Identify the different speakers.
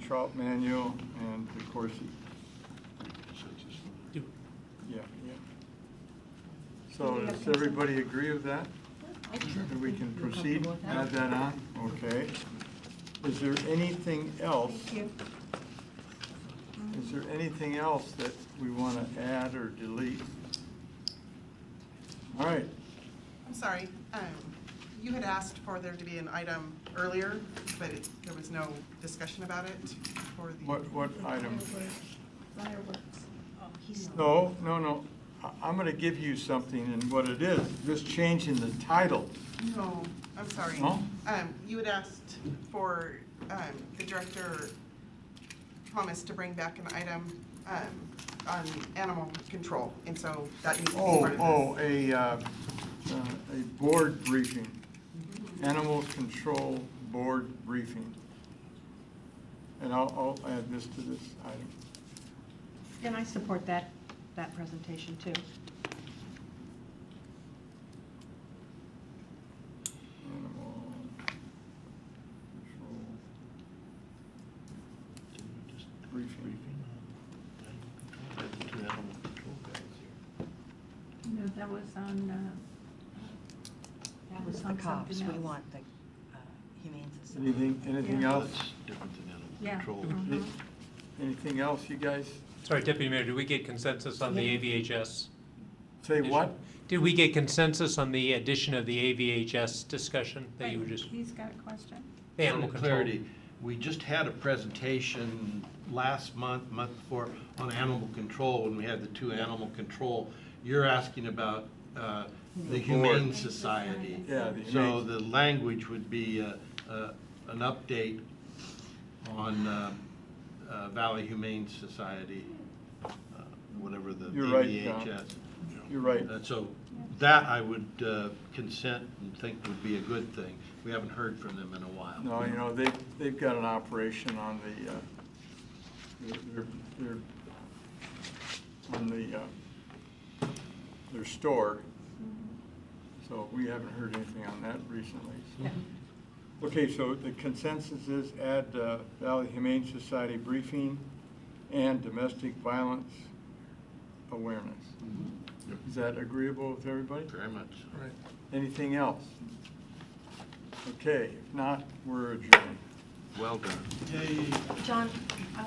Speaker 1: Trout Manuel and DeCoursey.
Speaker 2: Do-
Speaker 1: Yeah, yeah. So does everybody agree with that? And we can proceed, add that on? Okay. Is there anything else? Is there anything else that we want to add or delete? All right,
Speaker 3: I'm sorry, um, you had asked for there to be an item earlier, but it- there was no discussion about it for the.
Speaker 1: what, what item?
Speaker 4: Fireworks.
Speaker 1: No, no, no. I- I'm going to give you something and what it is, just changing the title.
Speaker 3: No, I'm sorry.
Speaker 1: No?
Speaker 3: Um, you had asked for, um, the director promised to bring back an item, um, on animal control, and so that needs to be
Speaker 1: Oh,
Speaker 3: part of this.
Speaker 1: oh, a, uh, uh, a board briefing, animal control board briefing. And I'll, I'll add this to this item.
Speaker 4: And I support that, that presentation too.
Speaker 1: Animal control briefing.
Speaker 4: No, that was on, uh,
Speaker 5: That was the cops, we want the uh, Humane Society.
Speaker 1: Anything, anything
Speaker 4: Yeah.
Speaker 1: else?
Speaker 4: Yeah.
Speaker 1: Any- Anything else, you guys?
Speaker 2: Sorry, Deputy Mayor, did we get consensus on the AVHS?
Speaker 1: Say what?
Speaker 2: Did we get consensus on the addition of the AVHS discussion that you were just,
Speaker 4: He's got a question.
Speaker 2: the animal
Speaker 6: For
Speaker 2: control?
Speaker 6: Clarity, we just had a presentation last month, month before, on animal control, when we had the two animal control. You're asking about uh, the
Speaker 1: The
Speaker 6: Humane
Speaker 1: board.
Speaker 6: Society.
Speaker 1: Yeah, the
Speaker 6: So
Speaker 1: Humane-
Speaker 6: the language would be uh, uh, an update on uh, uh, Valley Humane Society, uh, whatever the
Speaker 1: You're right, John.
Speaker 6: VHS.
Speaker 1: You're right.
Speaker 6: Uh, So that I would uh, consent and think would be a good thing. We haven't heard from them in a while.
Speaker 1: No, you know, they, they've got an operation on the, uh, their, their, on the, uh, their store. So we haven't heard anything on that recently. so. Okay, so the consensus is add uh, Valley Humane Society briefing and domestic violence awareness.
Speaker 6: Yep.
Speaker 1: Is that agreeable with everybody?
Speaker 6: Very much. Right.
Speaker 1: Anything else? Okay, if not, we're adjourned.
Speaker 6: Well done.
Speaker 5: John,